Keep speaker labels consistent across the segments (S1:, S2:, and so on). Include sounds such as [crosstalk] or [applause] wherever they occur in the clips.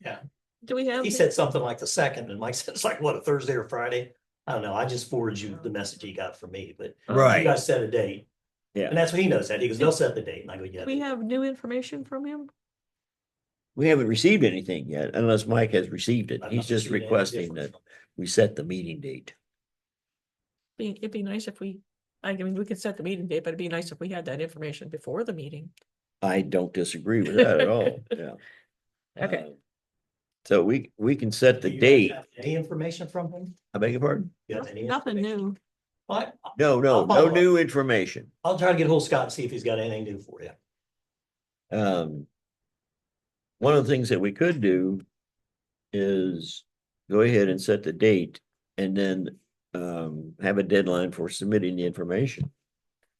S1: Yeah.
S2: Do we have?
S1: He said something like the second, and Mike [laughs] said it's like, what, a Thursday or Friday? I don't know. I just forwarded you the message he got from me, but
S2: uh,
S1: you
S3: Right.
S1: guys set a date.
S3: Yeah.
S1: And that's what he knows that. He goes, they'll set the date. And I go, yeah.
S2: Do we have new information from him?
S3: We haven't received anything yet unless Mike has received it.
S1: I've
S3: He's
S1: not
S3: just
S1: seen any
S3: requesting
S1: difference
S3: that we set the meeting date.
S2: Be, it'd be nice if we, I mean, we could set the meeting date, but it'd be nice if we had that information before the meeting.
S3: I don't disagree with that
S1: [laughs]
S3: at all. Yeah.
S2: Okay.
S3: Uh, So we, we can set
S1: Do
S3: the
S1: you guys
S3: date.
S1: have Any information from him?
S3: I beg your pardon?
S1: You have any
S2: Nothing
S1: information?
S2: new.
S1: Well, I-
S3: No, no,
S1: I'll follow
S3: no
S1: up.
S3: new information.
S1: I'll try to get hold of Scott and see if he's got anything new for you.
S3: Um. One of the things that we could do is go ahead and set the date and then um have a deadline for submitting the information.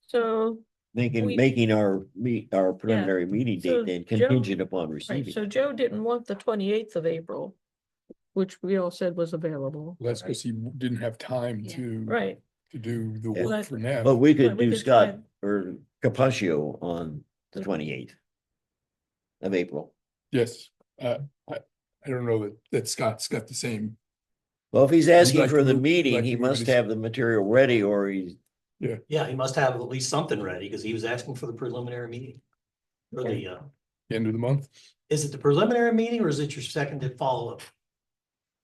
S2: So, We-
S3: Making, making our meet, our preliminary meeting
S2: So
S3: date then
S2: Joe-
S3: contingent upon
S2: right, so
S3: receiving.
S2: Joe didn't want the twenty-eighth of April, which we all said was available.
S4: That's because he w- didn't have time
S5: Yeah.
S4: to,
S2: Right,
S4: to do the
S3: Yeah.
S4: work
S2: But-
S4: for now.
S3: But we
S2: But
S3: could
S2: we
S3: do
S2: could
S3: Scott
S2: try-
S3: or Capaccio on the
S2: The-
S3: twenty eighth. Of April.
S4: Yes, uh, I, I don't know that, that Scott's got the same,
S3: Well, if he's asking
S4: like
S3: for
S4: to
S3: the
S4: move-
S3: meeting,
S4: like
S3: he
S4: to move
S3: must
S4: this-
S3: have the material ready or he's
S1: Yeah, he must have at least something ready because he was asking for the preliminary meeting. Or the, uh,
S4: end of the month.
S1: is it the preliminary meeting or is it your second to follow up?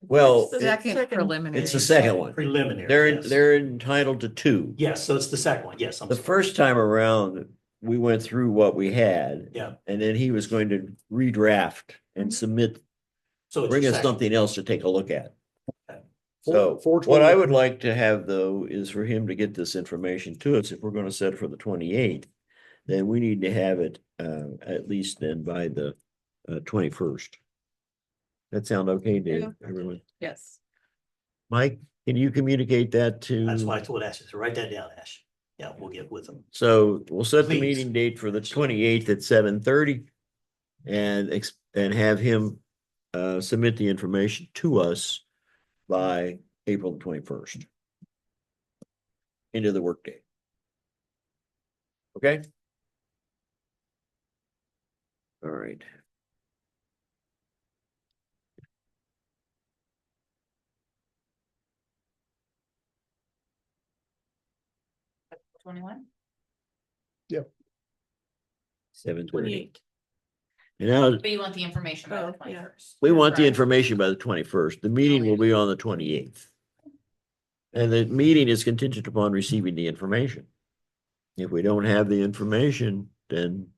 S3: Well,
S2: the
S3: it-
S5: Second
S2: second-
S5: preliminary.
S3: it's the second one.
S1: Preliminary.
S3: They're,
S1: yes.
S3: they're entitled to two.
S1: Yes, so it's the second one. Yes. I'm
S3: The
S1: sorry.
S3: first time around, we went through what we had.
S1: Yeah.
S3: And then he was going to redraft
S2: Mm-hmm.
S3: and submit,
S1: So it's
S3: bring
S1: the
S3: us
S1: second.
S3: something else to take a look at.
S1: Okay.
S3: So
S4: Four-
S3: what I would like to have though is for him to get this information to us. If we're going to set it for the twenty eighth, then we need to have it uh at least then by the uh twenty first. That sound okay, Dave?
S2: Yeah.
S3: Everyone?
S5: Yes.
S3: Mike, can you communicate that to?
S1: That's why I told Ash, I said, write that down, Ash. Yeah, we'll get with them.
S3: So we'll set the
S1: Please.
S3: meeting date for the twenty-eighth at seven thirty. And ex- and have him uh submit the information to us by April twenty-first. Into the workday. Okay? All right.
S5: Twenty-one?
S3: Seven thirty.
S2: twenty-eighth.
S3: And now,
S5: But you want the information by the
S2: Oh, yeah.
S5: twenty-first.
S3: we want the information by the twenty-first. The meeting will be on the twenty-eighth. And the meeting is contingent upon receiving the information. If we don't have the information, then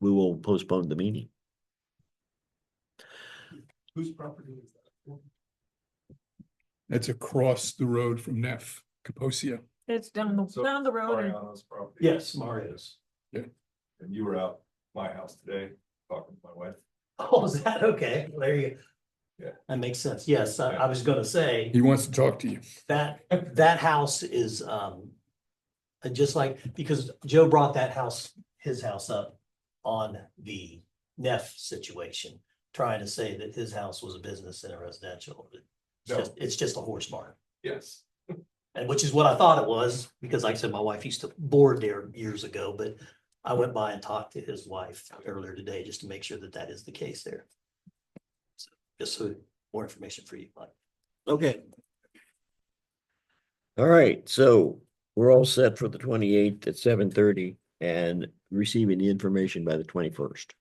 S3: we will postpone the meeting.
S4: Whose property is that? That's across the road from Neff, Kaposia.
S2: It's down, the
S6: So-
S2: down the road. and-
S6: Mariano's property.
S1: Yes, Mario's.
S6: And you were out my house today, talking to my wife.
S1: [laughs] Oh, is that okay? Well, There you. go.
S6: Yeah.
S1: That makes sense. Yes, I, I was gonna say
S4: He wants to talk to you.
S1: that, that house is, um. uh, Just like, because Joe brought that house, his house up on the Neff situation. Trying to say that his house was a business and a residential. but It's
S6: No.
S1: just, it's just a horse barn.
S6: Yes.
S1: And which is what I thought it was, because like I said, my wife used to board there years ago, but I went by and talked to his wife earlier today just to make sure that that is the case there. So Just so more information for you, Mike.
S3: Okay. All right, so we're all set for the twenty-eighth at seven thirty and receiving the information by the twenty-first.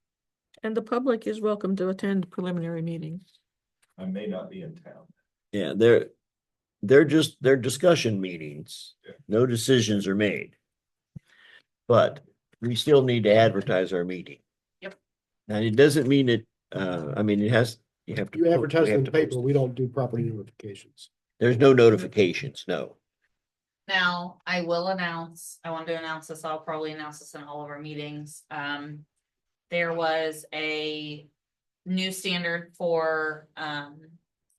S2: And the public is welcome to attend preliminary meetings.
S6: I may not be in town.
S3: Yeah, they're, they're just, they're discussion meetings.
S6: Yeah.
S3: No decisions are made. But we still need to advertise our meeting.
S5: Yep.
S3: Now, it doesn't mean it, uh, I mean, it has, you have to.
S7: You
S3: po- we
S7: advertise
S3: have
S7: in
S3: to
S7: the paper,
S3: post-
S7: we don't do property notifications.
S3: There's no notifications, no.
S5: Now, I will announce, I want to announce this, I'll probably announce this in all of our meetings, um. There was a new standard for, um.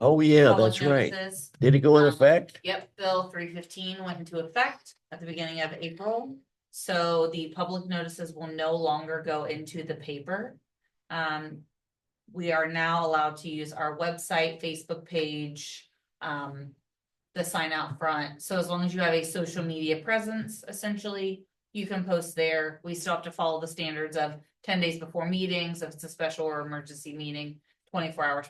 S3: Oh, yeah,
S5: public
S3: that's right.
S5: notices.
S3: Did it go in
S5: Um,
S3: effect?
S5: Yep, Bill three fifteen went into effect at the beginning of April. So the public notices will no longer go into the paper. Um, we are now allowed to use our website, Facebook page, um, the sign out front. So as long as you have a social media presence, essentially, you can post there. We still have to follow the standards of ten days before meetings, if it's a special or emergency meeting, twenty-four hours